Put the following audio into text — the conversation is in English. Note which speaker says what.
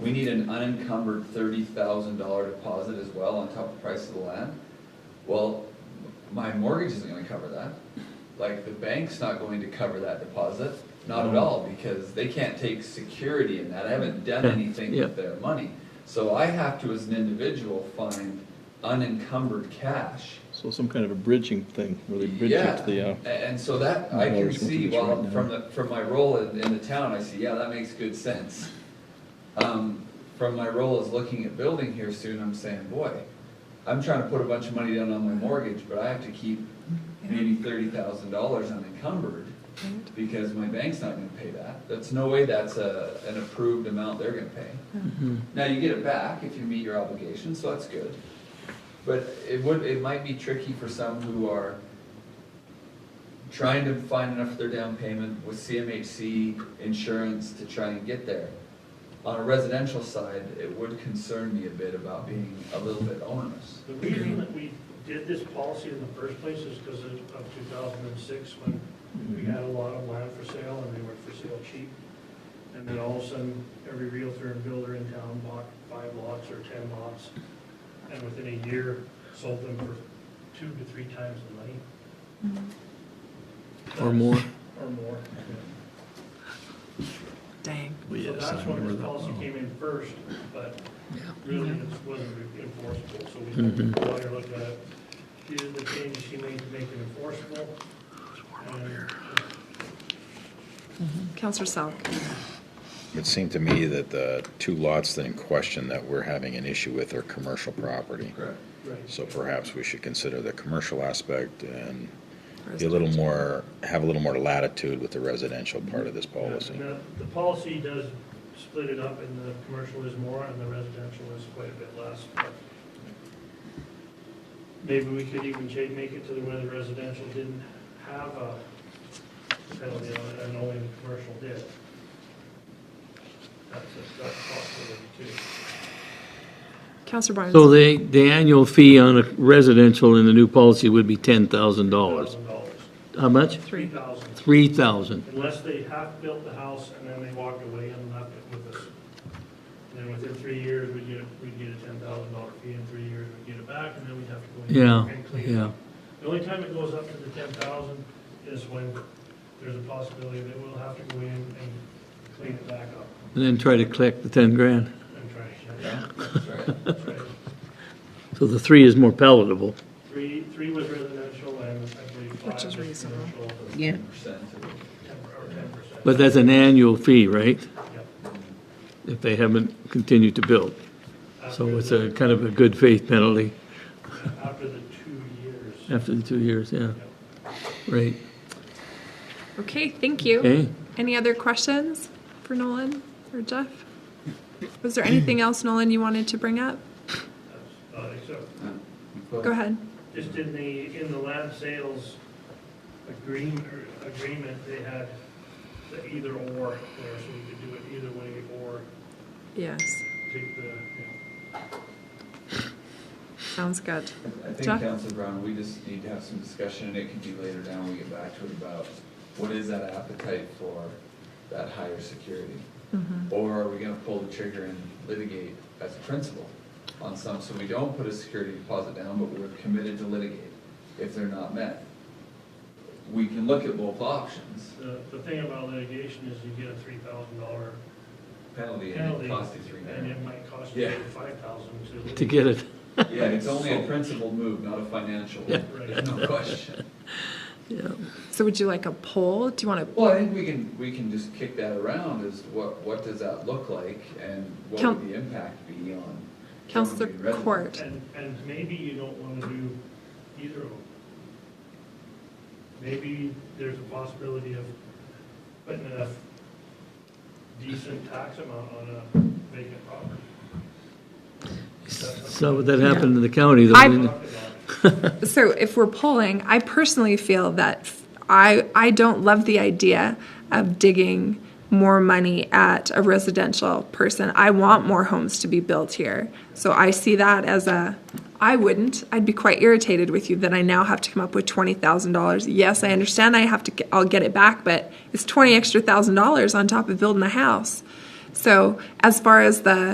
Speaker 1: we need an unencumbered thirty thousand dollar deposit as well on top of the price of the land. Well, my mortgage isn't gonna cover that, like, the bank's not going to cover that deposit, not at all, because they can't take security in that, I haven't done
Speaker 2: Yeah,
Speaker 1: anything
Speaker 2: yeah.
Speaker 1: with their money. So I have to, as an individual, find unencumbered cash.
Speaker 3: So some kind of a bridging thing, really bridge
Speaker 1: Yeah,
Speaker 3: it to the, uh,
Speaker 1: a- And so that, I can
Speaker 3: Dollars
Speaker 1: see,
Speaker 3: mortgage
Speaker 1: well,
Speaker 3: right now.
Speaker 1: from the, from my role in, in the town, I see, yeah, that makes good sense. Um, from my role as looking at building here soon, I'm saying, boy, I'm trying to put a bunch of money down on my mortgage, but I have to keep maybe thirty thousand dollars unencumbered because my bank's not gonna pay that. That's no way that's a, an approved amount they're gonna pay. Now, you get it back if you meet your obligations, so that's good. But it would, it might be tricky for some who are trying to find enough for their down payment with CMHC insurance to try and get there. On a residential side, it would concern me a bit about being a little bit onerous.
Speaker 4: The reason that we did this policy in the first place is because of of 2006, when we had a lot of land for sale, and they were for sale cheap. And then all of a sudden, every realtor and builder in town bought five lots or 10 lots, and within a year, sold them for two to three times the money.
Speaker 2: Or more.
Speaker 4: Or more.
Speaker 5: Dang.
Speaker 3: well,
Speaker 4: So
Speaker 3: yes, I
Speaker 4: that's when
Speaker 3: remember
Speaker 4: this
Speaker 3: that
Speaker 4: policy
Speaker 3: well.
Speaker 4: came in first, but really it wasn't enforceable, so we
Speaker 3: Mm-hmm.
Speaker 4: had the lawyer look at it. These are the changes he made to make it enforceable. And
Speaker 5: Counselor Salk.
Speaker 6: It seemed to me that the two lots that in question that we're having an issue with are commercial property.
Speaker 1: Correct.
Speaker 4: Right.
Speaker 6: So perhaps we should consider the commercial aspect and be a little more, have a little more latitude with the residential part of this policy.
Speaker 4: Now, The policy does split it up, and the commercial is more, and the residential is quite a bit less, but maybe we could even change, make it to the where the residential didn't have a penalty on it, and only the commercial did. That's, a- that's possible too.
Speaker 5: Counselor Barnes.
Speaker 2: So the, the annual fee on a residential in the new policy would be ten thousand dollars.
Speaker 4: Thousand dollars.
Speaker 2: How much?
Speaker 4: Three thousand,
Speaker 2: Three thousand.
Speaker 4: unless they half built the house and then they walked away and left it with us. And then within three years, we'd get, we'd get a ten thousand dollar fee, in three years, we'd get it back, and then we'd have to go. in
Speaker 2: Yeah,
Speaker 4: and clean it.
Speaker 2: yeah.
Speaker 4: The only time it goes up to the ten thousand is when there's a possibility that we'll have to go in and clean it back up
Speaker 2: And then try to collect the ten grand.
Speaker 4: and try to shut it
Speaker 1: Yeah,
Speaker 4: down.
Speaker 1: that's right.
Speaker 4: That's right.
Speaker 2: So the three is more palatable.
Speaker 4: Three, three was residential and I believe five
Speaker 5: Which is
Speaker 4: was
Speaker 5: reasonable.
Speaker 4: commercial,
Speaker 7: Yeah,
Speaker 1: 10% of it.
Speaker 4: ten, or ten percent.
Speaker 2: But that's an annual fee, right?
Speaker 4: Yep.
Speaker 2: If they haven't continued to build. So
Speaker 4: After
Speaker 2: it's
Speaker 4: the-
Speaker 2: a kind of a good faith penalty
Speaker 4: After the two years.
Speaker 2: after the two years, yeah. Right,
Speaker 5: Okay, thank you.
Speaker 2: okay.
Speaker 5: Any other questions for Nolan or Jeff? Was there anything else, Nolan, you wanted to bring up?
Speaker 4: Uh, Except,
Speaker 1: But-
Speaker 5: Go ahead.
Speaker 4: just in the, in the land sales agreement, or agreement, they had the either or there, so you could do it either way or
Speaker 5: Yes,
Speaker 4: take the, you know,
Speaker 5: sounds good.
Speaker 1: I think,
Speaker 5: Jeff?
Speaker 1: Councilor Brown, we just need to have some discussion, and it could be later down, when we get back to it, about what is that appetite for that higher security? Or are we gonna pull the trigger and litigate as a principle on some, so we don't put a security deposit down, but we're committed to litigate if they're not met? We can look at both options,
Speaker 4: The, the thing about litigation is you get a three thousand dollar
Speaker 1: penalty and
Speaker 4: penalty,
Speaker 1: it costs you three
Speaker 4: and
Speaker 1: grand.
Speaker 4: it might cost you
Speaker 1: Yeah.
Speaker 4: five thousand to.
Speaker 2: To get it,
Speaker 1: Yeah, it's only a principal move, not a financial,
Speaker 2: Yeah.
Speaker 1: there's no question.
Speaker 2: yeah.
Speaker 5: So would you like a poll? Do you want
Speaker 1: Well, I think we can, we can just kick that around as to what, what does that look like and what
Speaker 5: Coun-
Speaker 1: would the impact be on?
Speaker 5: to, Counselor
Speaker 1: County residents?
Speaker 5: Court?
Speaker 4: And, and maybe you don't wanna do either of them. Maybe there's a possibility of putting a decent tax amount on a vacant property.
Speaker 2: So that happened in the county though.
Speaker 5: I-
Speaker 2: didn't it?
Speaker 4: Talk about it.
Speaker 5: So if we're polling, I personally feel that f- I, I don't love the idea of digging more money at a residential person. I want more homes to be built here. So I see that as a, I wouldn't, I'd be quite irritated with you that I now have to come up with twenty thousand dollars. Yes, I understand I have to, get- I'll get it back, but it's twenty extra thousand dollars on top of building a house. So as far as the